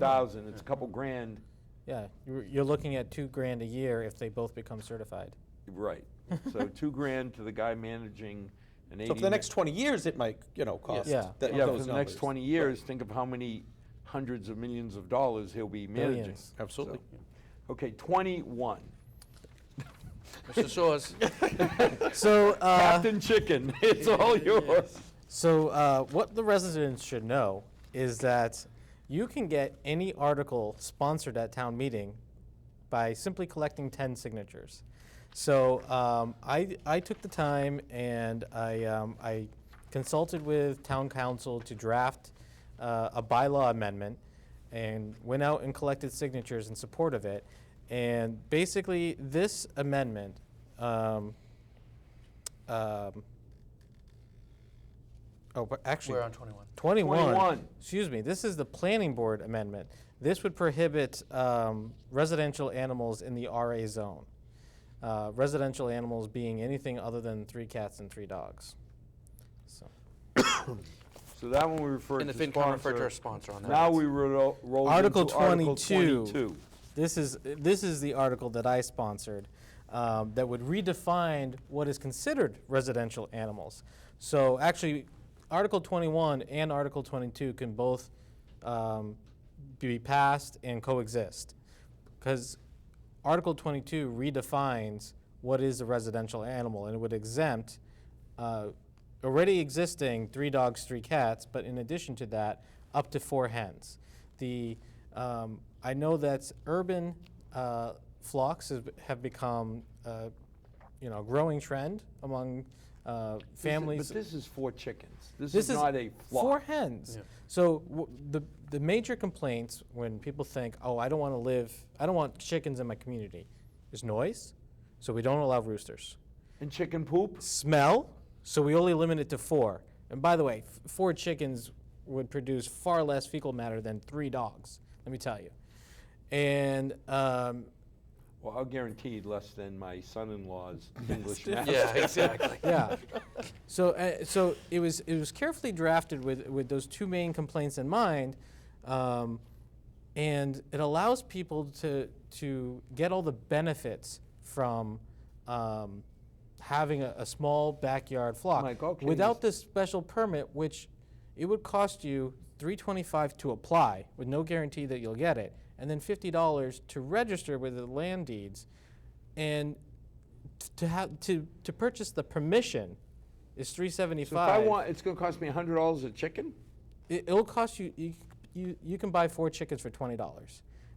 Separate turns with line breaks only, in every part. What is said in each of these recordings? thousand, it's a couple grand,
Yeah, you're, you're looking at two grand a year if they both become certified.
right. So two grand to the guy managing an eighty.
So for the next 20 years, it might, you know, cost.
Yeah.
that-
Yeah, for
those
the next
numbers.
twenty years, think of how many hundreds of millions of dollars he'll be managing.
Billions.
Absolutely.
So- Okay, twenty-one,
Mr. Soers,
So, uh,
Captain Chicken, it's all yours.
so uh, what the residents should know is that you can get any article sponsored at town meeting by simply collecting 10 signatures. So um, I, I took the time and I, um, I consulted with town council to draft uh, a bylaw amendment and went out and collected signatures in support of it. And basically, this amendment um, um, Oh, but actually.
We're on 21.
21.
21.
Excuse me, this is the planning board amendment. This would prohibit um, residential animals in the RA zone. Uh, Residential animals being anything other than three cats and three dogs. So,
So that one we referred to
and the
sponsor.
FinCom referred to our sponsor on that.
Now we ro- roll
Article
into Article
22.
twenty-two.
This is, this is the article that I sponsored um, that would redefine what is considered residential animals. So actually, Article 21 and Article 22 can both um, be passed and coexist. Because Article 22 redefines what is a residential animal, and it would exempt uh, already existing three dogs, three cats, but in addition to that, up to four hens. The um, I know that urban uh, flocks has, have become, uh, you know, a growing trend among uh, families.
But this is four chickens. This
This
is
is
not a
four
flock.
hens. So w- the the major complaints when people think, oh, I don't want to live, I don't want chickens in my community, is noise. So we don't allow roosters.
And chicken poop?
Smell. So we only limit it to four. And by the way, f- four chickens would produce far less fecal matter than three dogs. Let me tell you. And um,
Well, I'll guarantee less than my son-in-law's English master.
Yeah, exactly.
yeah. So, uh, so it was it was carefully drafted with with those two main complaints in mind, um, and it allows people to to get all the benefits from um, having a, a small backyard flock
Mike, okay,
without
yes.
this special permit, which it would cost you 325 to apply with no guarantee that you'll get it, and then $50 to register with the land deeds, and t- to have to to purchase the permission is 375.
So if I want, it's gonna cost me a hundred dollars a chicken?
it, it'll cost you, you you you can buy four chickens for $20,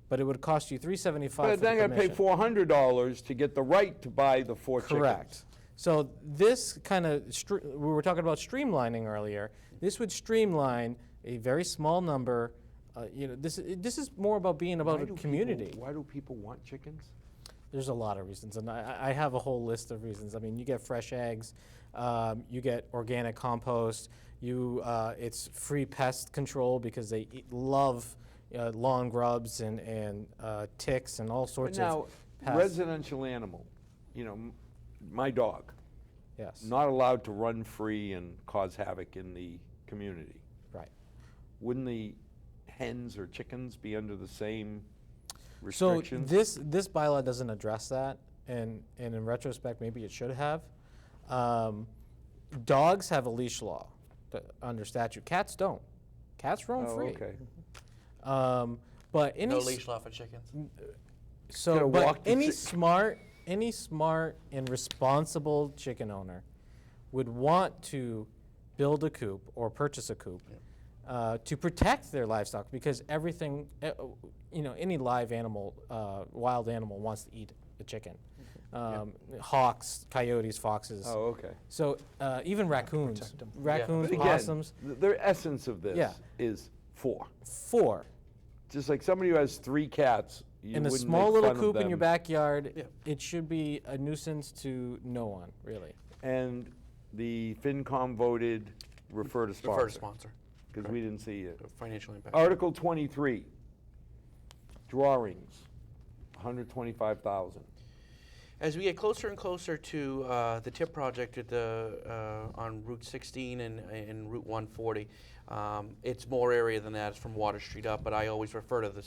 but it would cost you 375
But
for the
then I gotta pay
permission.
four hundred dollars to get the right to buy the four chickens.
Correct. So this kind of, stre- we were talking about streamlining earlier. This would streamline a very small number. Uh, you know, this i- this is more about being about
Why
a
do people-
community.
Why do people want chickens?
There's a lot of reasons, and I, I have a whole list of reasons. I mean, you get fresh eggs, um, you get organic compost, you uh, it's free pest control because they eat, love uh, lawn grubs and and uh, ticks and all sorts
Now,
of pests.
residential animal, you know, m- my dog,
yes.
not allowed to run free and cause havoc in the community.
right.
Wouldn't the hens or chickens be under the same
So
restrictions?
this this bylaw doesn't address that, and and in retrospect, maybe it should have. Um, dogs have a leash law th- under statute. Cats don't. Cats roam
Oh,
free.
okay.
Um, but any
No
s-
leash law for chickens.
Gotta
so but
walk the
any
chi-
smart any smart and responsible chicken owner would want to build a coop or purchase a coop uh, to protect their livestock because everything eh, oh, you know any live animal uh, wild animal wants to eat a chicken um, hawks coyotes foxes
Mm-hmm. Oh, okay.
so uh, even raccoons raccoons
But again,
possums
th- their essence of this
Yeah.
is four.
four
Just like somebody who has three cats, you
in a
wouldn't
small
make
little
fun of
coop in your
them.
backyard, it should be a nuisance to no one, really.
And the FinCom voted refer to
Preferred
sponsor
sponsor.
because we didn't see it.
Financial impact.
Article 23, drawings, 125,000.
as we get closer and closer to uh, the TIP project at the, uh, on Route 16 and, and Route 140, um, it's more area than that, it's from Water Street up, but I always refer to the